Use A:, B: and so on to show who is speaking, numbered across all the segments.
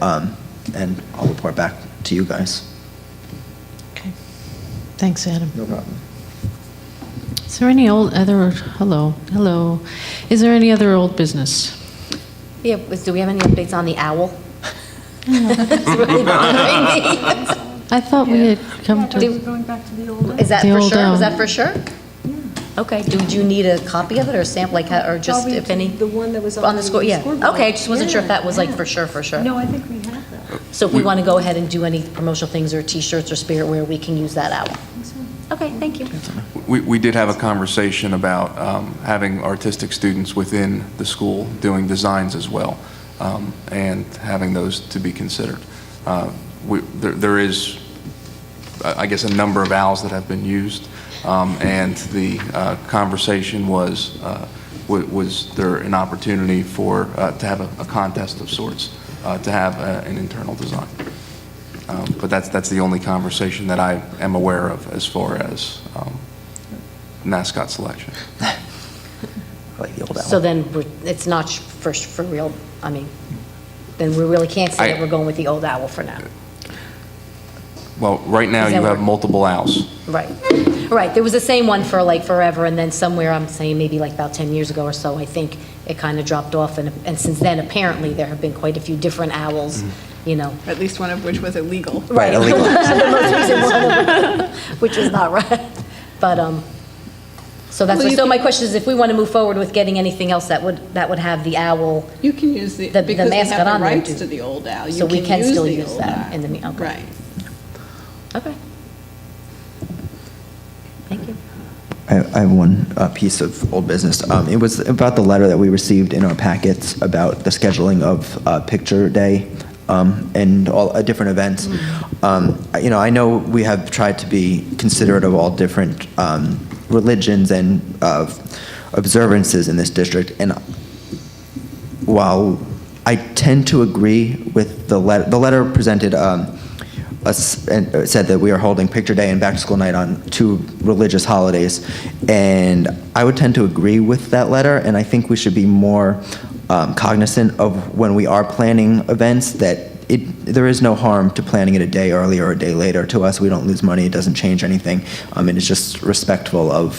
A: um, and I'll report back to you guys.
B: Okay. Thanks, Adam.
A: No problem.
B: Is there any old other, hello, hello. Is there any other old business?
C: Yeah, was- do we have any updates on the owl? It's really bothering me.
B: I thought we had come to,
C: Do-
D: Going back to the old one.
C: Is that
B: The
C: for
B: old
C: sure? Was that
B: owl.
C: for sure? Okay, do do you need a copy of it or a sample, like, how- or just
D: Probably
C: if any?
D: the one that was on the
C: score. Yeah,
D: scoreboard.
C: okay, I just wasn't sure if
D: Yeah,
C: that was like
D: yeah.
C: for sure, for sure.
D: No, I think we have that.
C: So if we want to go ahead and do any promotional things or T-shirts or spirit wear, we can use that owl. Okay, thank you.
E: We, we did have a conversation about um, having artistic students within the school doing designs as well, um, and having those to be considered. Uh, we- There there is, I I guess, a number of owls that have been used, um, and the uh, conversation was, uh, wa- was there an opportunity for, uh, to have a- a contest of sorts, uh, to have uh, an internal design? Um, But that's, that's the only conversation that I am aware of as far as um, mascot selection.
A: I like the old
C: So
A: owl.
C: then we're- it's not sh- for, sh- for real, I mean, then we really can't say that
E: I-
C: we're going with the old owl for now.
E: Well, right now,
C: Is
E: you
C: that
E: have
C: what-
E: multiple owls.
C: Right, right. There was the same one for like forever, and then somewhere, I'm saying maybe like about 10 years ago or so, I think it kind of dropped off, and, and since then, apparently, there have been quite a few different owls, you know.
F: at least one of which was illegal.
A: Right, illegal.
C: The most recent one, Which is not right, but, um, so that's,
F: Well, you
C: so my
F: can-
C: question is, if we want to move forward with getting anything else that would, that would have the owl,
F: You can use the,
C: The- the
F: because they
C: mascot
F: have
C: on
F: the
C: there,
F: rights
C: too.
F: to the old owl. You
C: So we can still
F: the
C: use
F: old
C: that
F: owl.
C: in the me- okay.
F: Right.
C: okay. Thank you.
A: I I have one uh, piece of old business. Um, It was about the letter that we received in our packets about the scheduling of uh, Picture Day um, and all uh, different events. Um, I- You know, I know we have tried to be considerate of all different um, religions and uh, observances in this district, and while I tend to agree with the letter, the letter presented, um, us, and uh, said that we are holding Picture Day and Back to School Night on two religious holidays, and I would tend to agree with that letter, and I think we should be more um, cognizant of when we are planning events, that it, there is no harm to planning it a day earlier or a day later. To us, we don't lose money, it doesn't change anything, um, and it's just respectful of,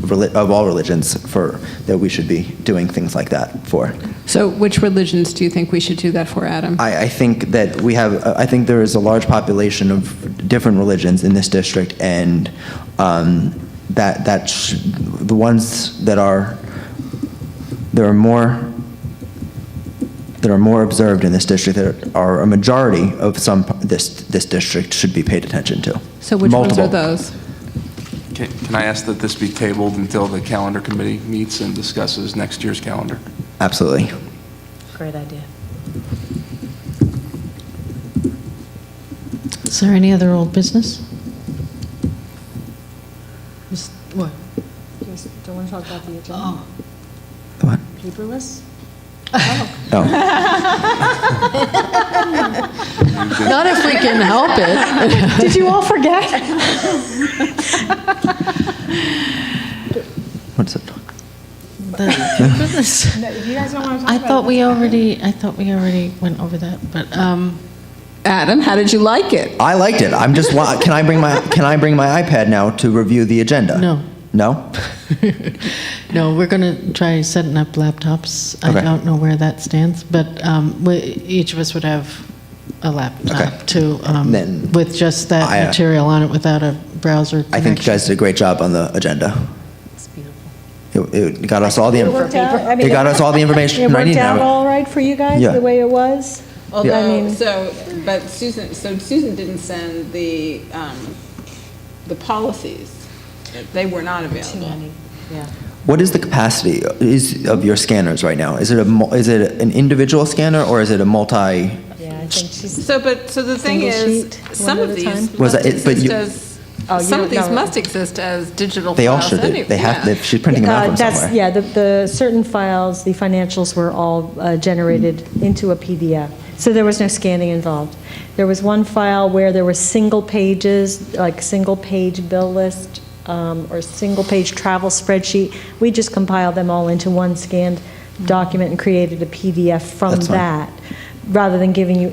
A: reli- of all religions for, that we should be doing things like that for.
G: So which religions do you think we should do that for, Adam?
A: I, I think that we have, uh, I think there is a large population of different religions in this district, and um, that, that, sh- the ones that are, there are more, that are more observed in this district, that are a majority of some, p- this, this district should be paid attention to.
G: So which ones are
A: Multiple.
G: those?
E: Can can I ask that this be tabled until the calendar committee meets and discusses next year's calendar?
A: Absolutely.
C: Great idea.
B: is there any other old business? Is- What?
D: Just don't want to talk about the agenda.
A: What?
D: Paperless?
A: Oh,
B: Not if we can help it. Did you all forget?
A: what's it?
D: No, if you guys don't want to talk
B: I
D: about it,
B: thought we
D: let's-
B: already, I thought we already went over that, but, um,
G: Adam, how did you like it?
A: I liked it. I'm just, wa- can I bring my, can I bring my iPad now to review the agenda?
B: No.
A: No?
B: no, we're going to try setting up laptops. I
A: Okay.
B: don't know where that stands, but um, we- each of us would have a
A: Okay.
B: laptop to, um,
A: Then
B: with just
A: I,
B: that
A: uh,
B: material on it without a browser
A: I think you
B: connection.
A: guys did a great job on the agenda.
C: It's beautiful.
A: It, it got us all the,
D: It worked
A: inf-
D: out. I mean,
A: it got us all the
D: It
A: information I
D: worked
A: needed.
D: out all right for you guys,
A: Yeah.
D: the way it was? I
F: Although,
D: mean-
F: so, but Susan, so Susan didn't send the, um, the policies. They were not available.
A: What is the capacity is of your scanners right now? Is it a, mul- is it an individual scanner or is it a multi?
C: Yeah, I think she's
F: So, but, so the thing
D: Single
F: is,
D: sheet, one
F: some
D: at
F: of
D: a
F: these
D: time?
A: Was
F: must
A: that it? But
F: exist
A: you-
F: as,
C: Oh, you
F: some of
C: don't
F: these
C: know.
F: must exist as digital
A: They all
F: files
A: should. They
F: anyway.
A: they have,
F: Yeah.
A: they- she's printing them out
D: Uh,
A: from
D: that's-
A: somewhere.
D: Yeah, the, the certain files, the financials were all uh, generated
A: Hmm.
D: into a PDF, so there was no scanning involved. There was one file where there were single pages, like single-page bill list um, or single-page travel spreadsheet. We just compiled them all into one scanned document and created a PDF from
A: That's fine.
D: that, rather than giving you